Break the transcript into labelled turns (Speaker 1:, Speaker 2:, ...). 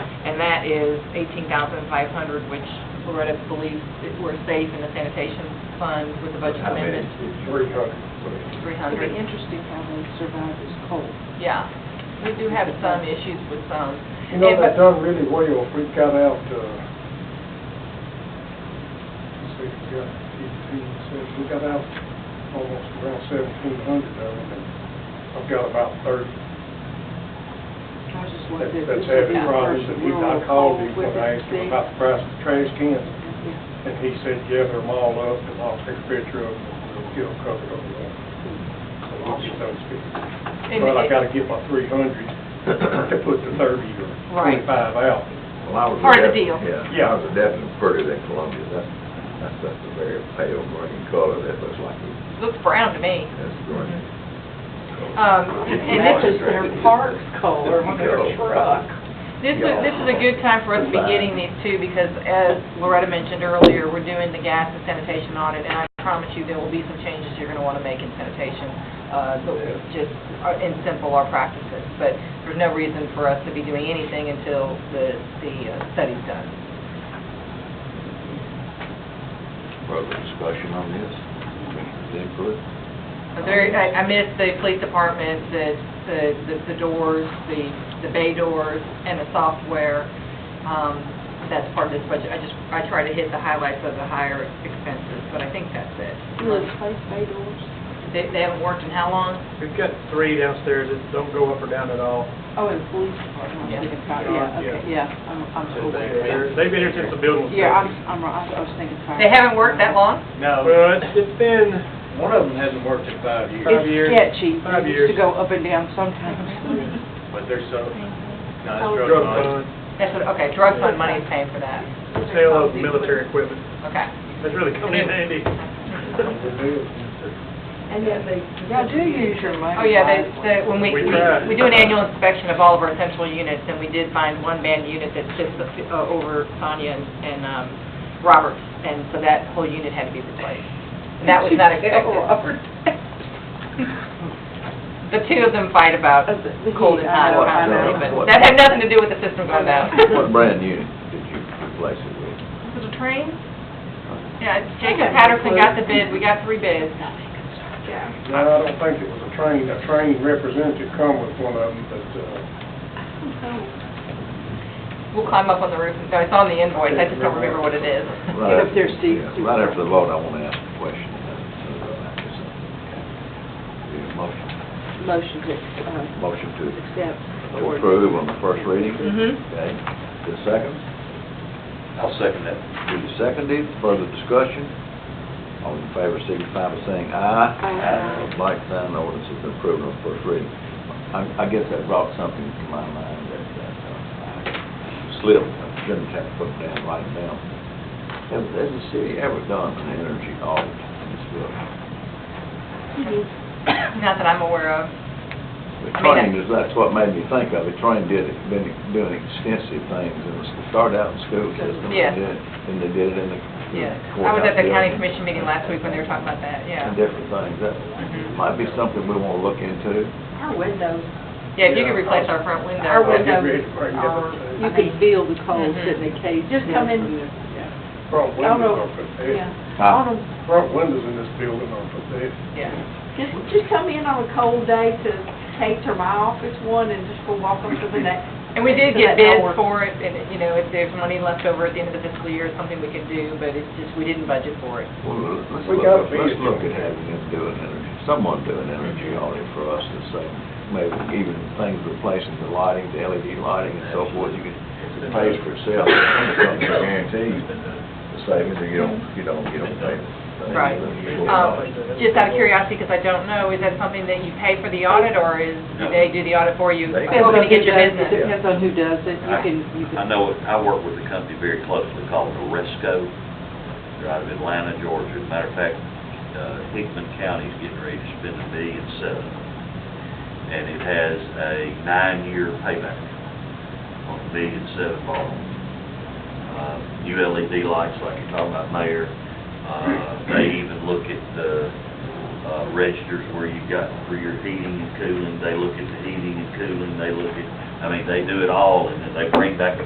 Speaker 1: and that is eighteen thousand five hundred, which Loretta believes that we're safe in the sanitation fund with the budget
Speaker 2: I mean,
Speaker 1: amendment,
Speaker 2: it's three hundred, so
Speaker 1: three
Speaker 3: It'd be
Speaker 1: hundred.
Speaker 3: interesting how they survive this cold.
Speaker 1: Yeah, we do have some issues with some.
Speaker 4: You know,
Speaker 1: And-
Speaker 4: they've done really well, we got out, uh, let's see, we got eighteen, so we got out almost around seventeen hundred of them, and I've got about thirty.
Speaker 3: I was just
Speaker 4: That-
Speaker 3: wondering if
Speaker 4: That's
Speaker 3: this is
Speaker 4: heavy,
Speaker 3: the
Speaker 4: Robbins,
Speaker 3: first
Speaker 4: and he, I
Speaker 3: rural
Speaker 4: called
Speaker 3: cold
Speaker 4: him
Speaker 3: we've
Speaker 4: when I asked him
Speaker 3: seen.
Speaker 4: about the price of trash cans,
Speaker 3: Yeah.
Speaker 4: and he said, yeah, they're them all up, and I'll take a picture of them, and we'll get them covered over there. So we'll get those fixed.
Speaker 1: and-
Speaker 4: Well, I gotta get my three hundred to put the thirty or
Speaker 1: Right.
Speaker 4: twenty-five out.
Speaker 2: Well, I was a
Speaker 1: Part of the deal.
Speaker 2: definite- Yeah, I was a definite pretty than Columbia, that's, that's, that's a very pale green color, that looks like it,
Speaker 1: Looks brown to me.
Speaker 2: that's green.
Speaker 1: Um, and this is
Speaker 2: their
Speaker 3: park's color on their truck.
Speaker 1: This is, this is a good time for us to be getting these too, because as Loretta mentioned earlier, we're doing the gas and sanitation audit, and I promise you, there will be some changes you're gonna wanna make in sanitation, uh, that will just, uh, in simple, our practices. But there's no reason for us to be doing anything until the, the uh, study's done.
Speaker 5: Further discussion on this? Input?
Speaker 1: There, I, I missed the police department, the, the- the, the doors, the, the bay doors, and the software. Um, that's part of this budget. I just, I try to hit the highlights of the higher expenses, but I think that's it.
Speaker 3: Will it face bay doors?
Speaker 1: They, they haven't worked in how long?
Speaker 6: We've got three downstairs that don't go up or down at all.
Speaker 3: Oh, and the police department.
Speaker 1: Yeah.
Speaker 3: Yeah, okay, yeah, I'm, I'm
Speaker 6: They've
Speaker 3: aware of
Speaker 6: been
Speaker 3: that.
Speaker 6: here since the building was.
Speaker 3: Yeah, I'm,
Speaker 6: built.
Speaker 3: I'm, right. I was thinking fire.
Speaker 1: They haven't worked that long?
Speaker 6: No. Well, it's, it's been. One of them hasn't worked in five Five years.
Speaker 3: It's sketchy.
Speaker 6: Five
Speaker 3: It
Speaker 6: years.
Speaker 3: used to go up and down sometimes.
Speaker 7: But there's so, no, it's
Speaker 3: Oh.
Speaker 7: drug
Speaker 6: Drug
Speaker 7: money.
Speaker 6: fund,
Speaker 1: That's what, okay, drug fund money is paying for that.
Speaker 6: sale of military equipment.
Speaker 1: Okay.
Speaker 6: That's really coming in handy.
Speaker 3: And yet they, y'all do use your money.
Speaker 1: Oh, yeah, they,
Speaker 3: wisely.
Speaker 1: the, when we,
Speaker 6: We
Speaker 1: we,
Speaker 6: tried.
Speaker 1: we do an annual inspection of all of our central units, and we did find one band unit that sits uh, over Sonia and, and, um, Roberts, and so that whole unit had to be replaced. And that was not
Speaker 3: Oh,
Speaker 1: expected.
Speaker 3: Upper-
Speaker 1: The two of them fight about
Speaker 3: of uh, the- the
Speaker 1: cold
Speaker 3: heat,
Speaker 1: and hot,
Speaker 3: I know,
Speaker 1: what
Speaker 3: I
Speaker 1: I'm
Speaker 3: know.
Speaker 1: doing, but that had nothing to do with the system going down.
Speaker 2: What brand new did you replace it with?
Speaker 1: Was it a train? Yeah, Jacob Patterson got the bid, we got three bids. Yeah.
Speaker 4: No, I don't think it was a train, a train representative come with one of them, but, uh,
Speaker 1: We'll climb up on the roof, and- no, it's on the invoice, I just don't remember what it is.
Speaker 2: Right
Speaker 3: up there,
Speaker 2: after-
Speaker 3: Steve.
Speaker 2: yeah, Right after the vote, I want to ask a question. about it, so I'll have to say. Need a Motion,
Speaker 3: Motion to, uh,
Speaker 2: motion to-
Speaker 3: accept. the
Speaker 2: to
Speaker 3: ordinance.
Speaker 2: approve on the first reading,
Speaker 1: Mm-hmm.
Speaker 2: okay? The second,
Speaker 5: I'll second that.
Speaker 2: duly seconded, further discussion. All in favor, signify by saying aye.
Speaker 3: Aye.
Speaker 2: Aye. Like sign, the ordinance has been approved on first reading. I, I guess that brought something to my mind that, that uh, slipped, I shouldn't have put it down, write it down. Has, has the city ever done an energy audit in this building?
Speaker 1: Not that I'm aware of.
Speaker 2: The
Speaker 1: I mean,
Speaker 2: train is, that's what made me think of it, train did, it, been doing extensive things, and it started out in school system,
Speaker 1: Yes.
Speaker 2: and did, it- and they did it in the
Speaker 1: Yeah. I
Speaker 2: courthouse
Speaker 1: was at the county
Speaker 2: building
Speaker 1: commission meeting last week when they were talking about that, yeah.
Speaker 2: And different things, that
Speaker 1: Mhm.
Speaker 2: might be something we wanna look into.
Speaker 3: Our windows.
Speaker 1: Yeah, if you could replace our front window.
Speaker 3: Our
Speaker 4: I'll get
Speaker 3: windows
Speaker 4: ready to bring it up.
Speaker 3: You could feel the cold
Speaker 1: Mhm.
Speaker 3: sitting in the cage.
Speaker 8: Just come in.
Speaker 3: in.
Speaker 4: Front
Speaker 3: I don't
Speaker 4: windows
Speaker 5: Oh,
Speaker 4: eh?
Speaker 3: know.
Speaker 4: are pathetic,
Speaker 2: Huh?
Speaker 3: On
Speaker 4: front windows in this building are pathetic.
Speaker 1: Yeah.
Speaker 8: Just, just come in on a cold day to take to my office one and just go walk up to the next.
Speaker 1: And we did
Speaker 8: So that
Speaker 1: get
Speaker 8: don't
Speaker 1: bids
Speaker 8: work.
Speaker 1: for it, and, you know, if there's money left over at the end of the fiscal year, it's something we could do, but it's just, we didn't budget for it.
Speaker 2: Well, let's
Speaker 4: We
Speaker 2: look,
Speaker 4: gotta
Speaker 2: at-
Speaker 4: be
Speaker 2: let's look
Speaker 4: doing
Speaker 2: at having them do an energy, someone do an energy audit for us to say, maybe even things replacing the lighting, the LED lighting and so forth, you could, it pays for itself, it's guaranteed. the savings, and you don't, you don't, you don't pay. the-
Speaker 1: Right. Um, Just out of curiosity, because I don't know, is that something that you pay for the audit, or is, do they do the audit for you?
Speaker 5: They-
Speaker 1: We're gonna get your business.
Speaker 3: Depends on who does it. You
Speaker 5: I-
Speaker 3: can, you can.
Speaker 5: I know, it- I work with a company very closely called Oresco. They're out of Atlanta, Georgia. As a matter of fact, uh, Hickman County's getting ready to spend a billion seven. And it has a nine-year payback on a billion seven bond. Uh, New LED lights like you're talking about, Mayor. Uh, They even look at the uh, registers where you've got for your heating and cooling. They look at the heating and cooling. They look at, I mean, they do it all and then they bring back a